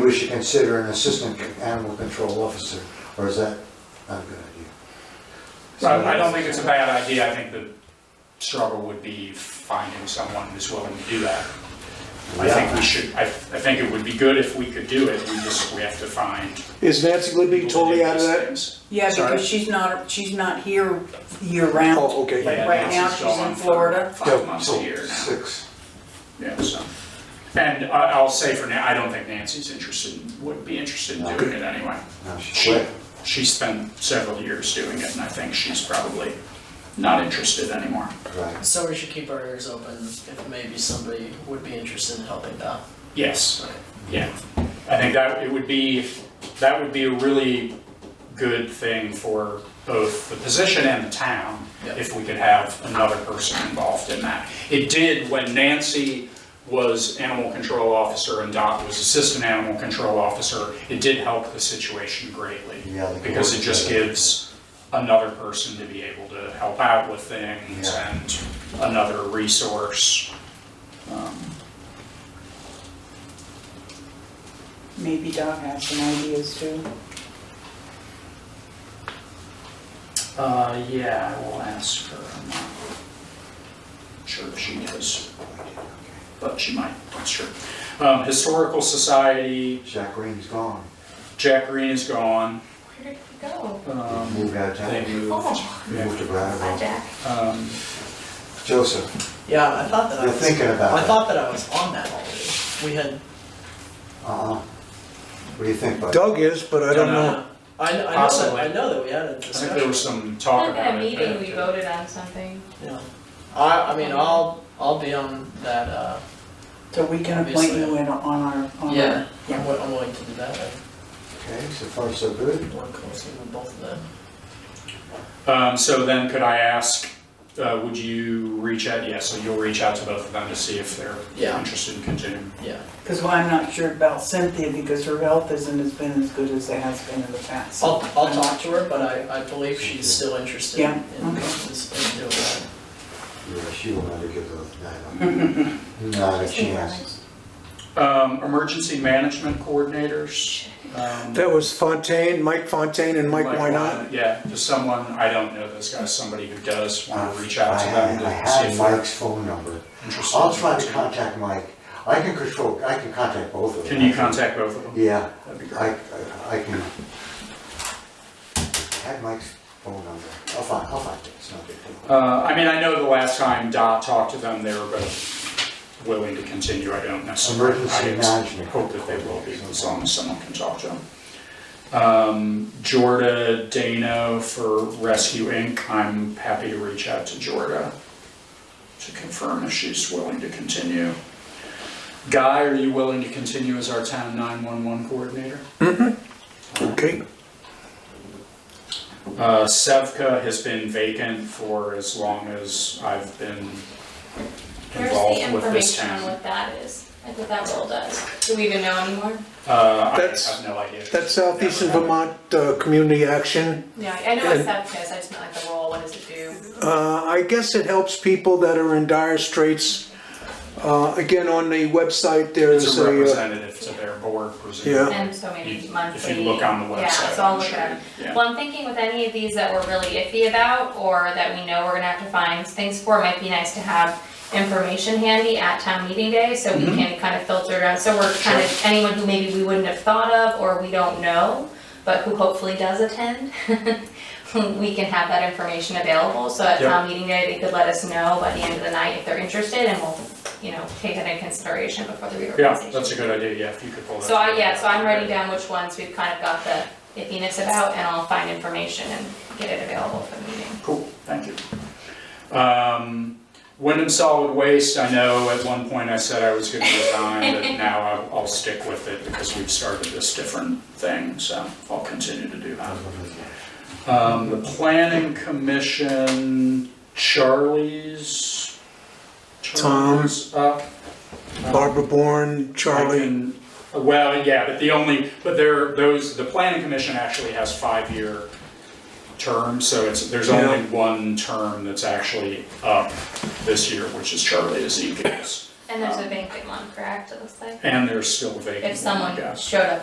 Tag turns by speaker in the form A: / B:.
A: we should consider an assistant animal control officer, or is that not a good idea?
B: So I don't think it's a bad idea, I think the struggle would be finding someone who's willing to do that. I think we should, I, I think it would be good if we could do it, we just, we have to find.
C: Is Nancy Libby
B: people to do
C: totally out of
B: these
C: that?
B: things.
D: Yeah,
B: Sorry?
D: because she's not, she's not here year-round.
C: Oh, okay.
B: Yeah,
D: Right now,
B: Nancy's
D: she's in
B: gone for
D: Florida.
B: Five months a year now,
A: Six.
B: yeah, so. And I, I'll say for now, I don't think Nancy's interested, in- would be interested in doing it anyway.
A: No, she's
B: She,
A: quit.
B: she spent several years doing it, and I think she's probably not interested anymore.
A: Right.
E: So we should keep our ears open if maybe somebody would be interested in helping out.
B: Yes, yeah. I think that it would be, that would be a really good thing for both the position and the town
E: Yeah.
B: if we could have another person involved in that. It did when Nancy was animal control officer and Doc was assistant animal control officer, it did help the situation greatly.
A: Yeah, they can
B: Because
A: work
B: it just
A: together.
B: gives another person to be able to help out with things
A: Yeah.
B: and another resource.
D: Maybe Doc has some ideas too.
B: Uh, yeah, I will ask her. I'm not sure if she knows, but she might, not sure. Um, Historical Society,
A: Jack Green's gone,
B: Jack Green is gone.
F: Where did he go?
B: Um,
A: moved out of
B: They
A: town,
B: moved.
F: Oh,
A: moved to
F: hi,
A: Brattleboro.
F: Jack.
B: Um,
A: Joseph,
E: Yeah, I thought that I
A: you're
E: was.
A: thinking about
E: I
A: that.
E: thought that I was on that already. We had.
A: Uh-uh. What do you think, bud?
C: Doug is, but I don't know.
E: uh, I, kn- I know, that-
B: Possibly.
E: I know that we had a
B: I think there
E: discussion.
B: was some
F: I
B: talk
F: think at a
B: about it.
F: meeting,
B: but-
F: we voted on something.
E: Yeah. I, I mean, I'll, I'll be on that, uh,
D: So we can appoint you in on our, on
E: yeah,
D: our.
E: I'm wi- I'm willing to do that. I
A: Okay, so far so good.
E: work closely with both of them.
B: Um, so then could I ask, uh, would you reach out, yeah, so you'll reach out to both of them to see if they're
E: Yeah.
B: interested in continuing.
E: Yeah.
D: Because I'm not sure about Cynthia because her health isn't as been as good as it has been in the past.
E: I'll, I'll talk to her, but I, I believe she's still interested in,
D: Yeah,
E: in in
D: okay.
E: doing that.
A: Yeah, she will never give those, nine up. Not a chance.
B: Um, Emergency Management Coordinators. um,
C: That was Fontaine, Mike Fontaine and Mike Why Not?
B: Wynot, uh, Yeah, just someone, I don't know this guy, somebody who does want to reach
A: Uh, I
B: out to them
A: had, I
B: to see
A: had
B: if they're
A: Mike's phone number.
B: interested.
A: I'll try to contact Mike. I can control, I can contact both of them.
B: Can you contact both of them?
A: Yeah,
B: That'd be
A: I,
B: great.
A: I- I can, I had Mike's phone number, I'll find, I'll find it, it's not a big deal.
B: Uh, I mean, I know the last time Dot talked to them, they were both willing to continue, I don't necessarily.
A: Emergency
B: I ex-
A: management.
B: Hope that they will be, as long as someone can talk to them. Um, Jorda Dano for Rescue Inc., I'm happy to reach out to Jorda to confirm if she's willing to continue. Guy, are you willing to continue as our town 911 coordinator?
C: Okay,
B: Uh, Sevka has been vacant for as long as I've been
F: Where's the
B: involved with this
F: information
B: town.
F: on what that is? Like what that role does? Do we even know anymore?
B: Uh, I
C: That's-
B: have no idea.
C: that's Southeastern Vermont uh, Community Action.
F: No, I know what SEVCA is, I just meant like the role, what does it do?
C: Uh, I guess it helps people that are in dire straits. Uh, Again, on the website, there
B: It's
C: is
B: a
C: a, uh,
B: representative to their board,
C: Yeah.
B: presumably.
F: And so many
B: You-
F: monthly.
B: If you look on the website.
F: Yeah, so I'll
B: I'm
F: look
B: sure
F: at it.
B: you- yeah.
F: Well, I'm thinking with any of these that we're really iffy about, or that we know we're gonna have to find things for, it might be nice to have information handy at town meeting day, so we
B: Mhm.
F: can kind of filter it out, so we're kind of, anyone who maybe we wouldn't have thought of, or we don't know, but who hopefully does attend, we can have that information available, so at
B: Yeah.
F: town meeting day, they could let us know by the end of the night if they're interested, and we'll, you know, take that into consideration before the reorganization.
B: Yeah, that's a good idea, yeah, if you could pull that.
F: So I,
B: together,
F: yeah, so
B: that'd
F: I'm
B: be
F: writing
B: great.
F: down which ones we've kind of got the iffiness about, and I'll find information and get it available for the meeting.
B: Cool, thank you. Um, Wyndham Solid Waste, I know at one point I said I was gonna resign, but now I'll, I'll stick with it because we've started this different thing, so I'll continue to do that. Um, the planning commission, Charlie's.
C: Tom.
B: Charlie's up.
C: Barbara Bourne,
B: I
C: Charlie.
B: can- Well, yeah, but the only, but there, those, the planning commission actually has five-year terms, so it's, there's only one term that's actually up this year, which is Charlie Ezekiel's.
F: And there's a banquet one, correct, it looks like?
B: And there's still a vacant
F: If
B: one, I
F: someone
B: guess.
F: showed up